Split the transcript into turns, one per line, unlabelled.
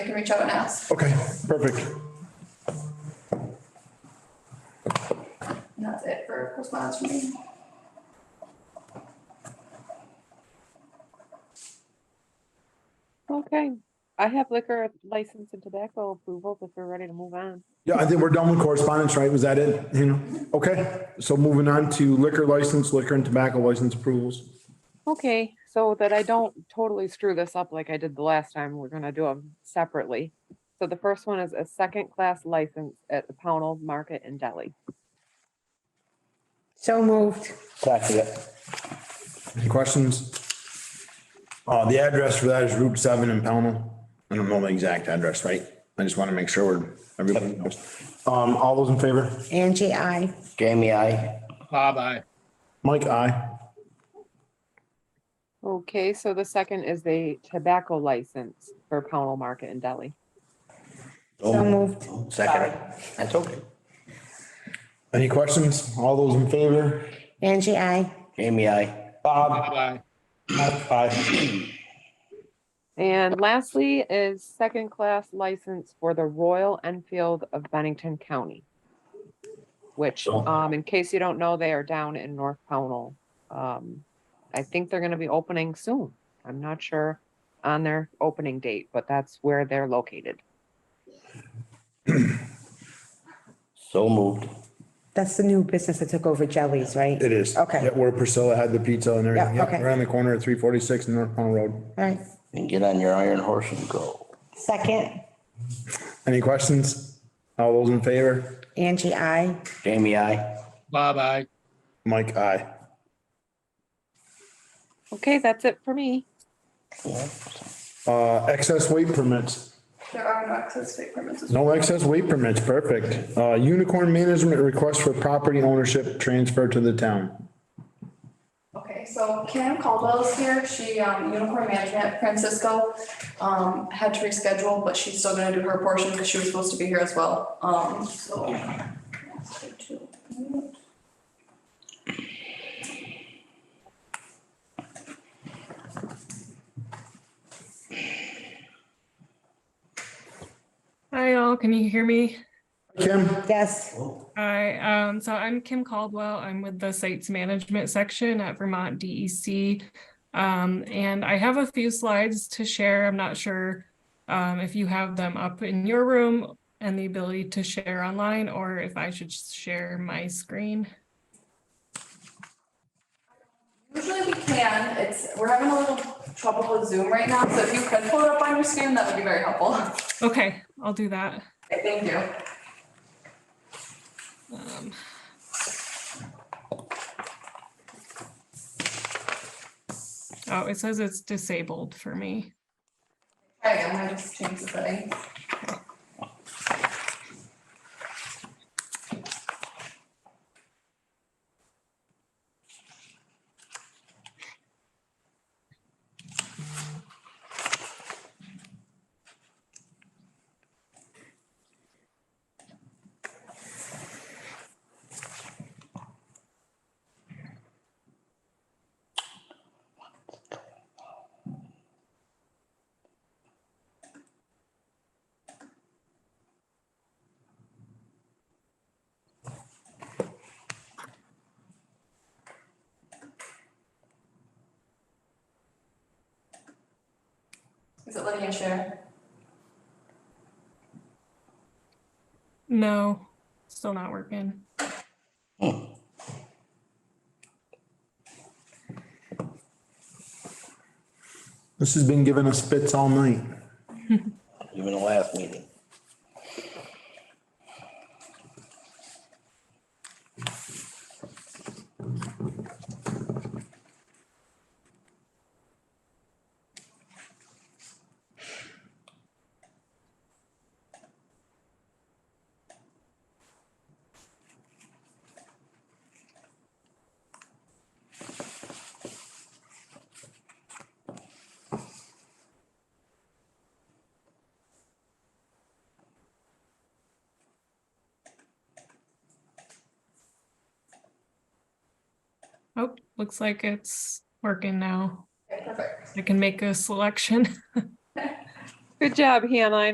they can reach out and ask.
Okay, perfect.
And that's it for correspondence from me.
Okay, I have liquor license and tobacco approvals if we're ready to move on.
Yeah, I think we're done with correspondence, right? Was that it? You know, okay. So moving on to liquor license, liquor and tobacco license approvals.
Okay, so that I don't totally screw this up like I did the last time, we're gonna do them separately. So the first one is a second-class license at the Pownell Market in Delhi.
So moved.
Second it.
Any questions? Uh, the address for that is Route seven in Pownell.
I don't know the exact address, right? I just want to make sure we're, everybody knows.
Um, all those in favor?
Angie, I.
Jamie, I.
Bob, aye.
Mike, aye.
Okay, so the second is the tobacco license for Pownell Market in Delhi.
So moved.
Second it. That's okay.
Any questions? All those in favor?
Angie, I.
Jamie, I.
Bob, aye.
And lastly is second-class license for the Royal Enfield of Bennington County. Which, um, in case you don't know, they are down in North Pownell. Um, I think they're gonna be opening soon. I'm not sure on their opening date, but that's where they're located.
So moved.
That's the new business that took over Jellies, right?
It is.
Okay.
Yeah, Where Priscilla had the pizza and everything.
Yeah,
Yeah,
okay.
around the corner at three forty-six North Pownell Road.
All right.
And get on your iron horse and go.
Second,
Any questions? All those in favor?
Angie, I.
Jamie, I.
Bob, aye.
Mike, aye.
Okay, that's it for me.
Uh, excess weight permits.
There are no access state permits.
No excess weight permits, perfect. Uh, unicorn management request for property ownership transfer to the town.
Okay, so Cam Caldwell is here. She, um, Unicorn Management, Francisco, um, had to reschedule, but she's still gonna do her portion because she was supposed to be here as well. Um, so.
Hi all, can you hear me?
Kim,
Yes,
Hi, um, so I'm Kim Caldwell. I'm with the Sites Management section at Vermont DEC. Um, and I have a few slides to share. I'm not sure um, if you have them up in your room and the ability to share online, or if I should share my screen.
Usually we can, it's, we're having a little trouble with Zoom right now, so if you could pull it up on your screen, that would be very helpful.
Okay, I'll do that.
Okay, Thank you.
Um, Oh, it says it's disabled for me.
Try again, I just changed the setting. Is it letting you share?
No, still not working.
this has been giving us fits all night.
Even the last meeting.
Oh, looks like it's working now.
Okay, perfect.
I can make a selection.
Good job, Hannah. I